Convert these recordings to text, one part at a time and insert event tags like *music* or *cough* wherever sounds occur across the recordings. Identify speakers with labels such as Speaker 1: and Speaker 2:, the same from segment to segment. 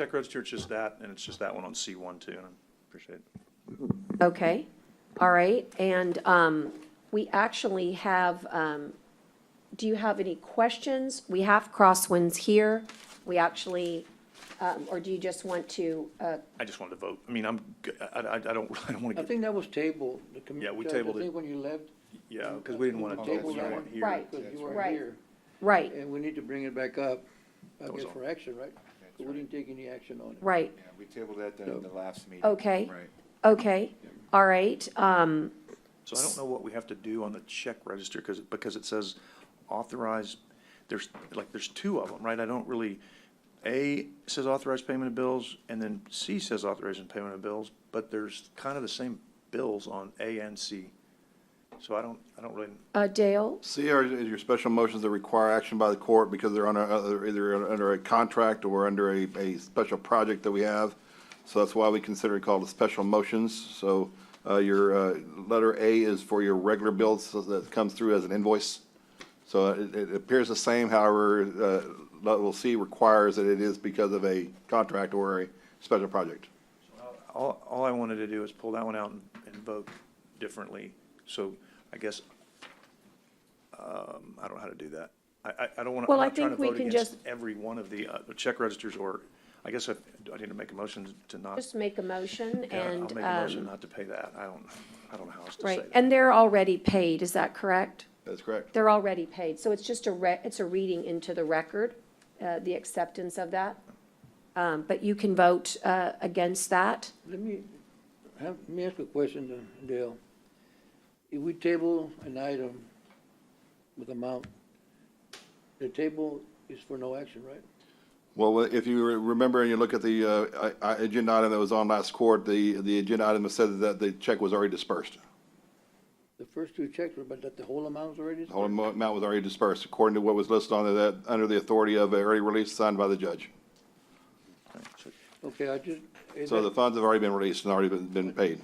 Speaker 1: Tech Register, it's just that, and it's just that one on C1 too, and I appreciate it.
Speaker 2: Okay, all right, and um, we actually have, um, do you have any questions? We have crosswinds here, we actually, um, or do you just want to, uh,
Speaker 1: I just wanted to vote. I mean, I'm, g- I, I- I don't, *laughs* I don't want
Speaker 3: I
Speaker 1: to get,
Speaker 3: think that was tabled. the commu-
Speaker 1: Yeah, we
Speaker 3: Judge,
Speaker 1: tabled it.
Speaker 3: I think when you left,
Speaker 1: yeah, because we didn't want to
Speaker 3: Oh,
Speaker 1: table that
Speaker 3: that's right.
Speaker 1: one here.
Speaker 2: Right.
Speaker 3: because you weren't
Speaker 2: right.
Speaker 3: here,
Speaker 2: right,
Speaker 3: and we need to bring it back up, I
Speaker 1: That was
Speaker 3: guess,
Speaker 1: all.
Speaker 3: for action, right? But we didn't take any action on it.
Speaker 2: right,
Speaker 4: Yeah, we tabled that then at the last meeting.
Speaker 2: Okay.
Speaker 4: Right.
Speaker 2: okay, all right, um,
Speaker 1: So I don't know what we have to do on the check register, because, because it says authorize, there's, like, there's two of them, right? I don't really, A says authorized payment of bills, and then C says authorization payment of bills, but there's kind of the same bills on A and C. So I don't, I don't really,
Speaker 2: uh, Dale?
Speaker 5: C are your special motions that require action by the court because they're under, uh, either under a contract or under a, a special project that we have. So that's why we consider it called a special motions. So, uh, your, uh, letter A is for your regular bills so that comes through as an invoice. So it, it appears the same, however, uh, level C requires that it is because of a contract or a special project.
Speaker 1: all, all I wanted to do is pull that one out and, and vote differently. So I guess, um, I don't know how to do that. I, I, I don't want to, I'm
Speaker 2: Well, I
Speaker 1: not trying to
Speaker 2: think we
Speaker 1: vote
Speaker 2: can
Speaker 1: against
Speaker 2: just-
Speaker 1: every one of the, uh, check registers, or, I guess I, do I need to make a motion to not.
Speaker 2: Just make a motion
Speaker 1: Yeah, I'll
Speaker 2: and,
Speaker 1: make a motion
Speaker 2: um,
Speaker 1: not to pay that. I don't, I don't know how else to say
Speaker 2: right,
Speaker 1: that.
Speaker 2: and they're already paid, is that correct?
Speaker 5: That's correct.
Speaker 2: They're already paid, so it's just a re, it's a reading into the record, uh, the acceptance of that. Um, but you can vote, uh, against that.
Speaker 3: Let me, have, let me ask a question, uh, Dale. If we table an item with amount, the table is for no action, right?
Speaker 5: Well, if you re- remember and you look at the uh, I- I- agenda item that was on last court, the, the agenda item said that the check was already dispersed.
Speaker 3: The first two checks were, but that the whole amount was already.
Speaker 5: The whole amo- amount was already dispersed according to what was listed on that, under the authority of an early release signed by the judge.
Speaker 3: Okay, I just. is
Speaker 5: So
Speaker 3: that-
Speaker 5: the funds have already been released and already been, been paid.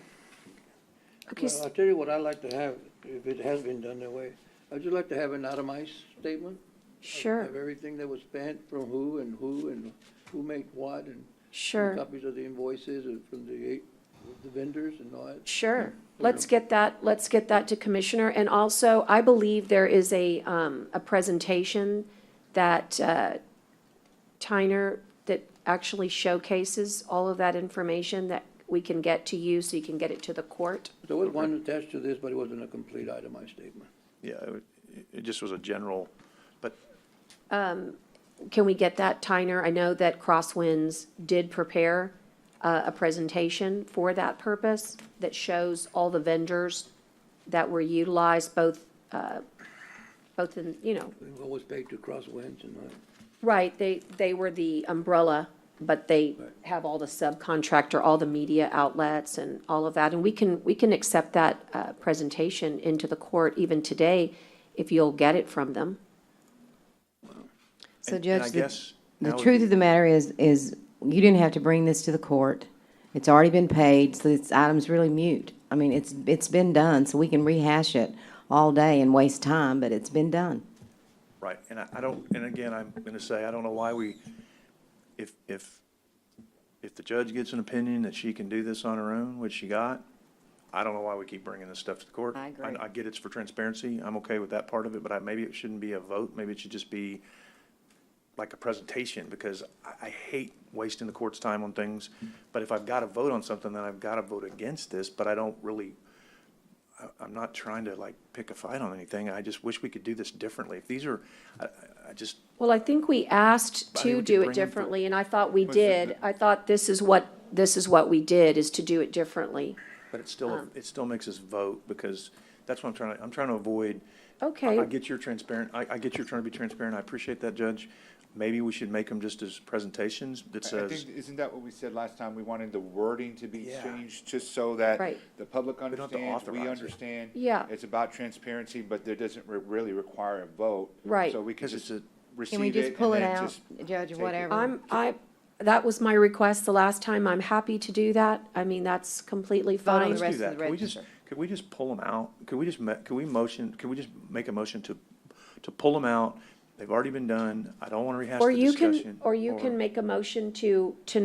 Speaker 2: Okay,
Speaker 3: Well, I'll tell you what I'd like to have, if it has been done that way, I'd just like to have an itemized statement
Speaker 2: sure,
Speaker 3: of everything that was spent from who and who and who made what and
Speaker 2: sure,
Speaker 3: copies of the invoices and from the, eight- the vendors and all that.
Speaker 2: sure. Let's get that, let's get that to Commissioner. And also, I believe there is a, um, a presentation that, uh, Tyner, that actually showcases all of that information that we can get to you, so you can get it to the court.
Speaker 3: There was one attached to this, but it wasn't a complete itemized statement.
Speaker 1: Yeah, it would- it, it just was a general, but
Speaker 2: Can we get that, Tyner? I know that Crosswinds did prepare uh, a presentation for that purpose that shows all the vendors that were utilized, both, uh, both in, you know,
Speaker 3: And What was paid to Crosswinds and all that.
Speaker 2: right, they, they were the umbrella, but they have all the subcontractor, all the media outlets and all of that. And we can, we can accept that uh, presentation into the court even today if you'll get it from them.
Speaker 6: So
Speaker 1: And- and I
Speaker 6: Judge, the,
Speaker 1: guess
Speaker 6: the
Speaker 1: now would
Speaker 6: truth
Speaker 1: be-
Speaker 6: of the matter is, is you didn't have to bring this to the court. It's already been paid, so this item's really mute. I mean, it's, it's been done, so we can rehash it all day and waste time, but it's been done.
Speaker 1: Right, and I, I don't, and again, I'm gonna say, I don't know why we, if, if, if the judge gets an opinion that she can do this on her own, which she got, I don't know why we keep bringing this stuff to the court.
Speaker 6: I agree.
Speaker 1: I get it's for transparency, I'm okay with that part of it, but I, maybe it shouldn't be a vote, maybe it should just be like a presentation, because I, I hate wasting the court's time on things, but if I've gotta vote on something, then I've gotta vote against this, but I don't really I- I'm not trying to like pick a fight on anything. I just wish we could do this differently. If these are, I- I, I just,
Speaker 2: Well, I think we asked
Speaker 1: I think
Speaker 2: to
Speaker 1: we could
Speaker 2: do it
Speaker 1: bring them for-
Speaker 2: differently, and I thought we
Speaker 5: Was it
Speaker 2: did. I thought this is what, this is what we did, is to do it differently.
Speaker 1: but it still, it still makes us vote because that's what I'm trying to, I'm trying to avoid. I- I
Speaker 2: Okay,
Speaker 1: get your transparent, I, I get you're trying to be transparent. I appreciate that, Judge. Maybe we should make them just as presentations that
Speaker 4: I- I
Speaker 1: says,
Speaker 4: think, isn't that what we said last time? We wanted the wording to be
Speaker 1: Yeah.
Speaker 4: changed just so that
Speaker 2: Right.
Speaker 4: the public
Speaker 1: don't have to
Speaker 4: understands, we
Speaker 1: authorize it.
Speaker 4: understand.
Speaker 2: Yeah.
Speaker 4: It's about transparency, but there doesn't re- really require a vote.
Speaker 2: Right.
Speaker 4: So we can
Speaker 1: 'Cause it's
Speaker 4: just
Speaker 1: a-
Speaker 4: receive
Speaker 6: Can
Speaker 4: it
Speaker 6: we
Speaker 4: and
Speaker 6: just pull it
Speaker 4: then
Speaker 6: out,
Speaker 4: just
Speaker 6: Judge,
Speaker 4: take it.
Speaker 6: whatever?
Speaker 2: I'm, I, that was my request the last time. I'm happy to do that. I mean, that's completely
Speaker 6: on
Speaker 2: fine.
Speaker 6: the
Speaker 1: do
Speaker 6: rest of
Speaker 1: that.
Speaker 6: the
Speaker 1: Can we just,
Speaker 6: register.
Speaker 1: could we just pull them out? Could we just, ma- could we motion, could we just make a motion to, to pull them out? They've already been done. I don't want to rehash
Speaker 2: Or
Speaker 1: the
Speaker 2: you
Speaker 1: discussion.
Speaker 2: can, or you can make a motion to, to